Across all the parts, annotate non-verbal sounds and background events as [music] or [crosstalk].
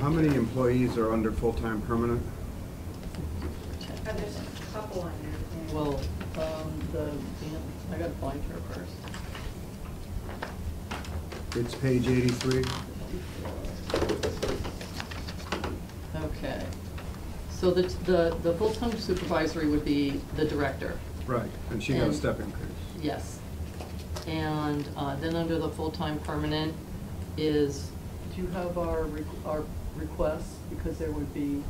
How many employees are under full-time permanent? Uh, There's a couple on there. yeah. Well, um, the, yeah, I gotta find her first. It's page eighty-three. Okay. So the, the, the full-time supervisory would be the director, Right. And she got a And- step increase. yes. And, uh, then under the full-time permanent is, do you have our, re- our requests? Because there would be,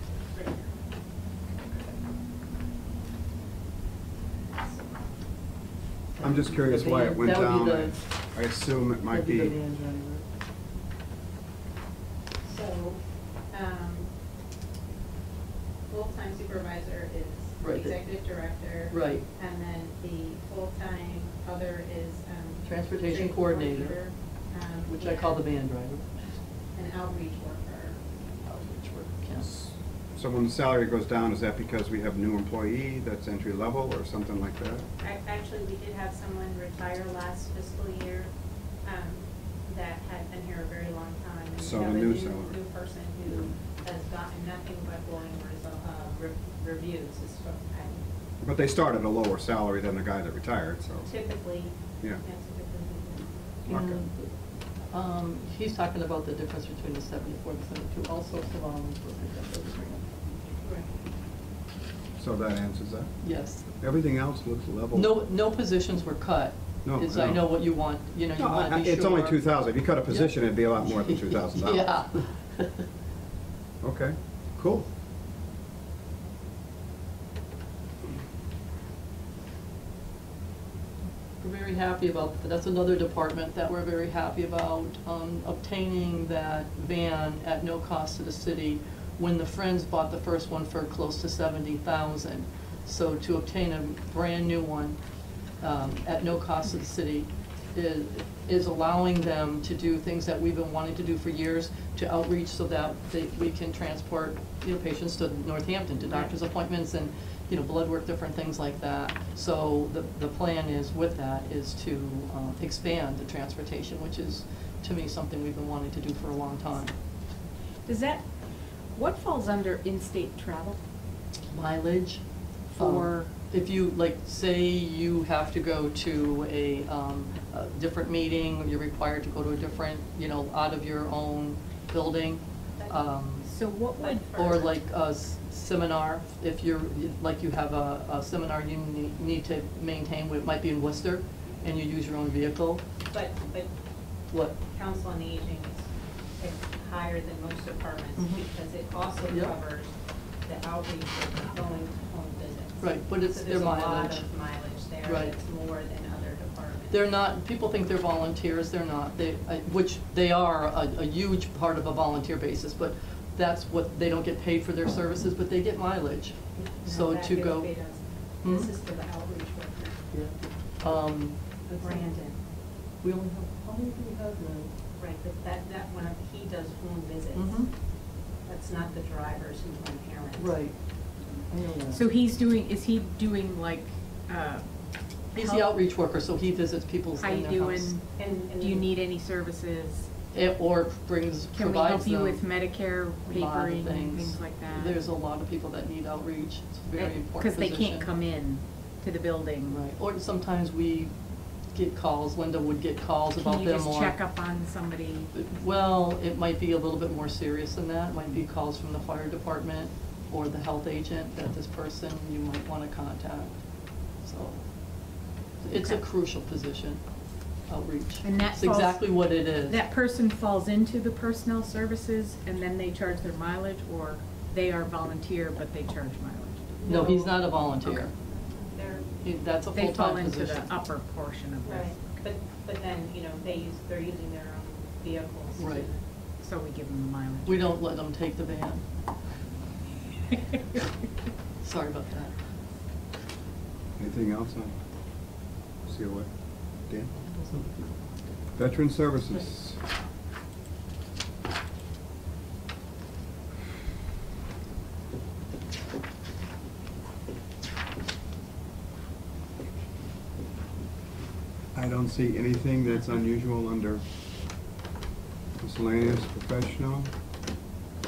I'm just curious The why it van- went that would down. be I I assume it that'd might be be, the van driver. So, um, full-time supervisor is the Right. executive director. Right. And then the full-time other is, um. Transportation trade coordinator, um, Which I call the van and driver. An outreach worker. Outreach work, yes. so when the salary goes down, is that because we have new employee that's entry level or something like that? Ac- Actually, we did have someone retire last fiscal year, um, that had been here a very long time. and we So have a new salary. New person who has gotten nothing but glowing result, uh, re- reviews, is what I But they start at a lower salary than the guy that retired, so. typically. Yeah. typically Okay. And, um, he's talking about the difference between the seventy-four and seventy-two, also Savon's work is up there. do. So that answers that. Yes. Everything else looks level. No, no positions were cut. No, Because I no. know what you want, you know, you No, want I- I- to be It's only sure. two thousand. If you cut a position, it'd be a lot more than two thousand dollars. [laughs] Yeah. [laughs] Okay, cool. We're very happy about, that's another department that we're very happy about, um, obtaining that van at no cost to the city when the Friends bought the first one for close to seventy thousand. So to obtain a brand-new one, um, at no cost to the city is, is allowing them to do things that we've been wanting to do for years, to outreach so that they, we can transport, you know, patients to Northampton, to doctor's appointments and, you know, blood work, different things like that. So the, the plan is with that is to, um, expand the transportation, which is, to me, something we've been wanting to do for a long time. Does that, what falls under in-state travel? mileage for, For- Um, if you, like, say you have to go to a, um, a different meeting, you're required to go to a different, you know, out of your own building, um, So what would, or like a s- seminar, if you're, like you have a, a seminar you ne- need to maintain, it might be in Worcester, and you use your own vehicle, But, but what, council on aging is higher than most departments Mhm. because it also Yeah. covers the outreach of going home visits. Right, but it's So their mileage. There's a lot of mileage there. Right. It's more than other departments. They're not, people think they're volunteers, they're not, they, I- which they are a, a huge part of a volunteer basis, but that's what, they don't get paid for their services, but they get mileage. Now So that to gets go. paid us. Hmm? This is for the outreach worker, Yeah. Um, Brandon, we only have, how many do we have now? right, but that, that one, he does home Mhm. visits. That's not the drivers who run errands. Right. I know that. so he's doing, is he doing like, uh, He's help? the outreach worker, so he visits people's How in you their house. doing? And, and. Do you need any services? It- Or brings, Can we help provides you them with Medicare a lot of papering and things like that? There's a lot of people that need outreach, it's a very important Because they position. can't come in to the building. Right, or sometimes we get calls, Linda would get calls Can about you them just or. check up on somebody? Well, it might be a little bit more serious than that, It might be calls from the fire department or the health agent that this person you might wanna contact, so. It's a Okay. crucial position, outreach. And that It's falls- exactly what it is. That person falls into the personnel services and then they charge their mileage, or they are volunteer, but they charge mileage? No, he's not a volunteer, Okay. They're, He- that's a They fall full-time into the position. upper portion of right, this, but, but then, you know, they use, they're using their own vehicles. to- Right. so we give them the mileage. We [laughs] don't let them take the van, sorry about that. Anything else on COA? Dan? Veteran Services. I don't see anything that's unusual under miscellaneous professional.